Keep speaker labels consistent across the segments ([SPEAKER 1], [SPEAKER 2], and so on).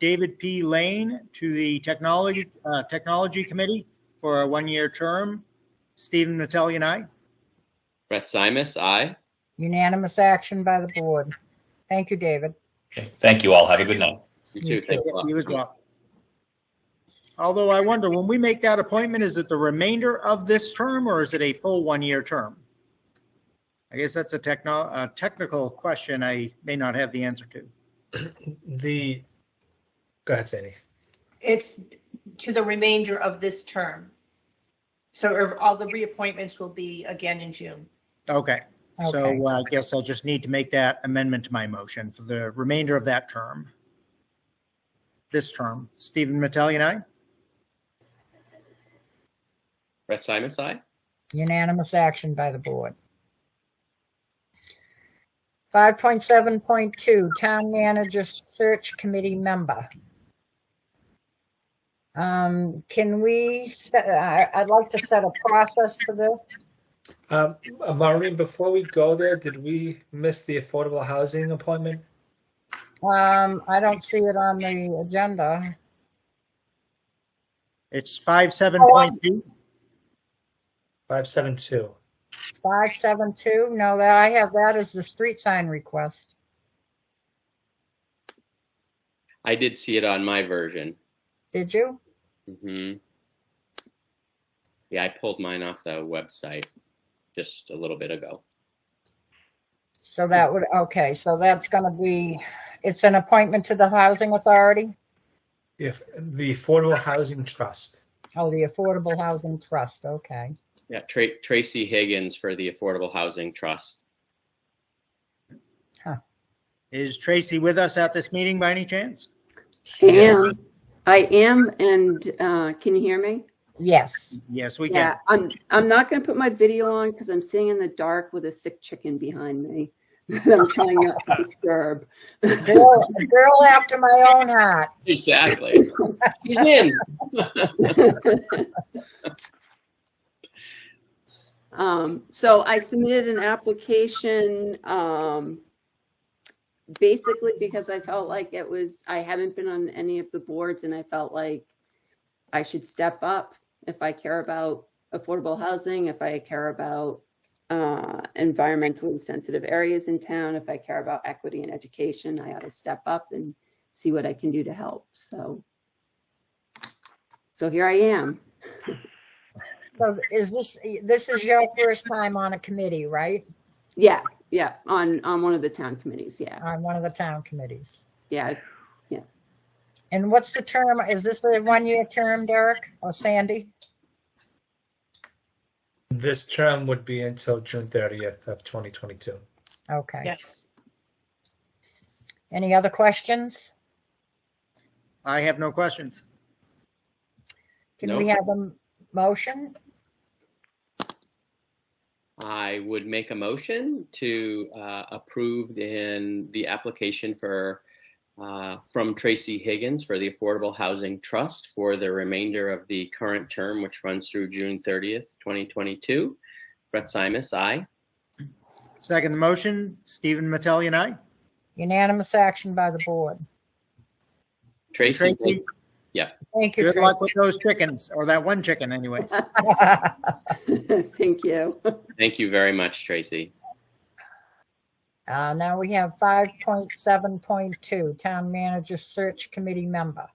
[SPEAKER 1] David P. Lane to the Technology, uh, Technology Committee for a one-year term. Stephen Mattelli and I.
[SPEAKER 2] Brett Simus, aye.
[SPEAKER 3] Unanimous action by the board. Thank you, David.
[SPEAKER 4] Okay, thank you all. Have a good night.
[SPEAKER 2] You too. Thank you.
[SPEAKER 1] You as well. Although I wonder, when we make that appointment, is it the remainder of this term or is it a full one-year term? I guess that's a techno, a technical question I may not have the answer to.
[SPEAKER 5] The, go ahead, Sandy.
[SPEAKER 6] It's to the remainder of this term. So er, all the reappointments will be again in June.
[SPEAKER 1] Okay,
[SPEAKER 3] Okay.
[SPEAKER 1] so uh, I guess I'll just need to make that amendment to my motion for the remainder of that term. This term, Stephen Mattelli and I.
[SPEAKER 2] Brett Simus, aye.
[SPEAKER 3] Unanimous action by the board. 5.7.2 Town Manager Search Committee Member. Um, Can we, set- I- I'd like to set a process for this.
[SPEAKER 5] Um, uh, Maureen, before we go there, did we miss the affordable housing appointment?
[SPEAKER 3] Um, I don't see it on the agenda.
[SPEAKER 1] It's five seven point two.
[SPEAKER 5] Five seven two.
[SPEAKER 3] 572, no, that I have that as the street sign request.
[SPEAKER 2] I did see it on my version.
[SPEAKER 3] Did you?
[SPEAKER 2] hmm Yeah, I pulled mine off the website just a little bit ago.
[SPEAKER 3] So that would, okay, so that's going to be, it's an appointment to the Housing Authority?
[SPEAKER 5] If the affordable housing trust.
[SPEAKER 3] Oh, the Affordable Housing Trust, okay.
[SPEAKER 2] Yeah, Tra- Tracy Higgins for the Affordable Housing Trust.
[SPEAKER 1] Is Tracy with us at this meeting by any chance?
[SPEAKER 7] I am. I am, and uh, can you hear me?
[SPEAKER 3] Yes,
[SPEAKER 1] Yes, we
[SPEAKER 7] yeah,
[SPEAKER 1] can.
[SPEAKER 7] I'm. I'm not going to put my video on because I'm sitting in the dark with a sick chicken behind me that I'm trying not to disturb.
[SPEAKER 3] girl, girl after my own heart.
[SPEAKER 2] Exactly. She's in.
[SPEAKER 7] Um, so I submitted an application, um, basically because I felt like it was, I haven't been on any of the boards and I felt like I should step up if I care about affordable housing, if I care about, uh, environmentally sensitive areas in town, if I care about equity and education, I ought to step up and see what I can do to help, so. So here I am.
[SPEAKER 3] So is this, this is your first time on a committee, right?
[SPEAKER 7] Yeah, yeah, on, on one of the town committees, yeah.
[SPEAKER 3] On one of the town committees?
[SPEAKER 7] Yeah,
[SPEAKER 3] And what's the term? Is this a one-year term, Derek or Sandy?
[SPEAKER 5] This term would be until June thirtieth of twenty twenty-two.
[SPEAKER 3] Okay.
[SPEAKER 6] Yes.
[SPEAKER 3] Any other questions?
[SPEAKER 1] I have no questions.
[SPEAKER 3] Can
[SPEAKER 2] No.
[SPEAKER 3] we have a m- motion?
[SPEAKER 2] I would make a motion to uh, approve in the application for uh, from Tracy Higgins for the Affordable Housing Trust for the remainder of the current term, which runs through June 30th, 2022. Brett Simus, aye.
[SPEAKER 1] Second the motion, Stephen Mattelli and I.
[SPEAKER 3] Unanimous action by the board.
[SPEAKER 2] Tracy,
[SPEAKER 1] Tracy,
[SPEAKER 3] Thank you,
[SPEAKER 1] good luck with
[SPEAKER 3] Tracy.
[SPEAKER 1] those chickens, or that one chicken anyways.
[SPEAKER 7] Thank you.
[SPEAKER 2] thank you very much, Tracy.
[SPEAKER 3] Uh, now we have five point seven point two, Town Manager Search Committee member,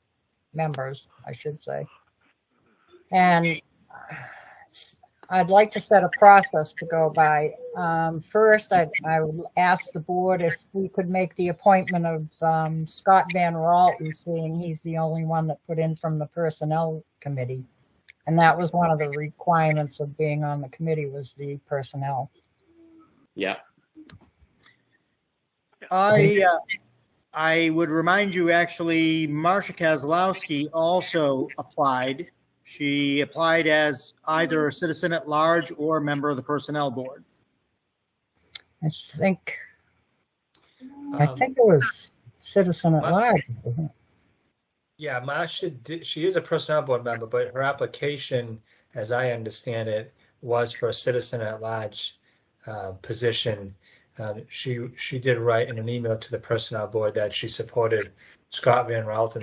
[SPEAKER 3] members, I should say. And uh, I'd like to set a process to go by. Um, first, I, I would ask the board if we could make the appointment of, um, Scott Van Ralton, seeing he's the only one that put in from the Personnel Committee. And that was one of the requirements of being on the committee was the personnel.
[SPEAKER 2] Yeah,
[SPEAKER 1] I, uh, I would remind you, actually, Marcia Kozlowski also applied. She applied as either a citizen at large or a member of the Personnel Board.
[SPEAKER 3] I think
[SPEAKER 5] Um,
[SPEAKER 3] I think it was Citizen at
[SPEAKER 5] Wow.
[SPEAKER 3] Large. wasn't it?
[SPEAKER 5] Yeah, Masha, did, she is a personnel board member, but her application, as I understand it, was for a citizen at large uh, position. Um, she she did write in an email to the personnel board that she supported Scott Van Ralton